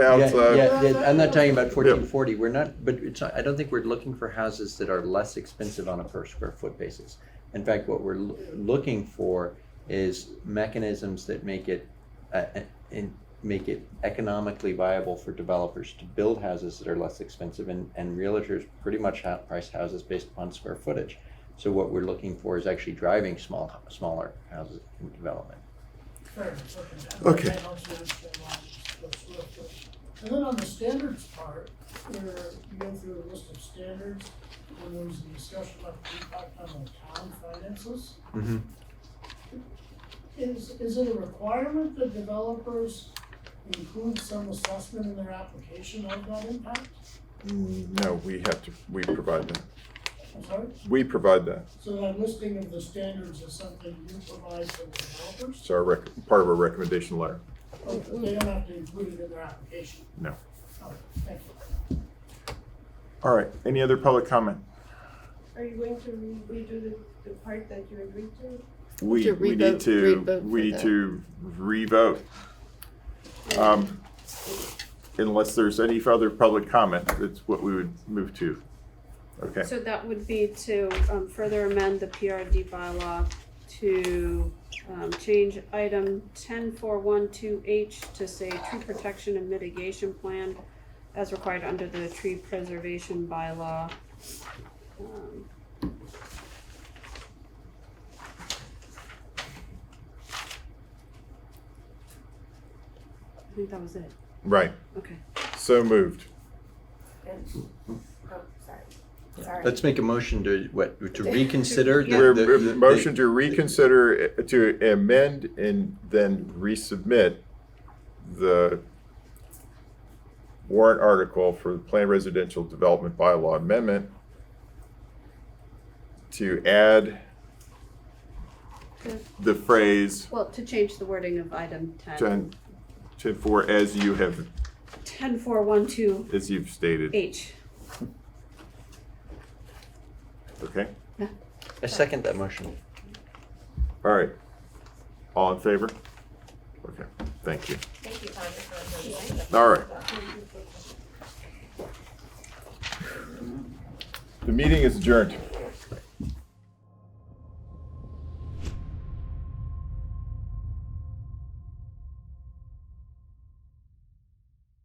outside. Yeah, yeah, I'm not talking about fourteen forty, we're not, but it's, not- I don't think we're looking for houses that are less expensive on a per square foot basis. In fact, what we're loo- looking for is mechanisms that make it, uh, uh, in, make it economically viable for developers to build houses that are less expensive and, and realtors pretty much ha- price houses based upon square footage. So what we're looking for is actually driving small, smaller houses in development. Fair, Okay. I also understand why it's so slow. And then on the standards part, where you go through a list of standards, when there was a discussion about the impact on the town finances, is, is it a requirement that developers include some assessment in their application of that impact? No, we have to, we provide that. I'm sorry, We provide that. so that listing of the standards is something you provide to the developers, It's our rec, part of our recommendation letter. Oh, they don't have to include it in their application? No. Oh, thank you. All right, any other public comment? Are you going to re- redo the, the part that you agreed to? We, To we need revote- to, revote we for need that. to revote. Um, Unless there's any further public comment, that's what we would move to. Okay, So that would be to um, further amend the PRD bylaw to um, change item 10412H to say tree protection and mitigation plan as required under the tree preservation bylaw. Um, I think that was it. right, Okay. so moved. And, oh, sorry, sorry. Let's make a motion to, what, to reconsider? the- We're- the- we're- the- Motion to reconsider, uh, to amend and then resubmit the warrant article for the Plan Residential Development Bylaw Amendment to add The- the phrase Well, to change the wording of item 10. ten, ten four, as you have, 10412H. as you've stated, okay? I second that motion. All right. All in favor? Okay, thank you. Thank you, Congressman. All right. The meeting is adjourned.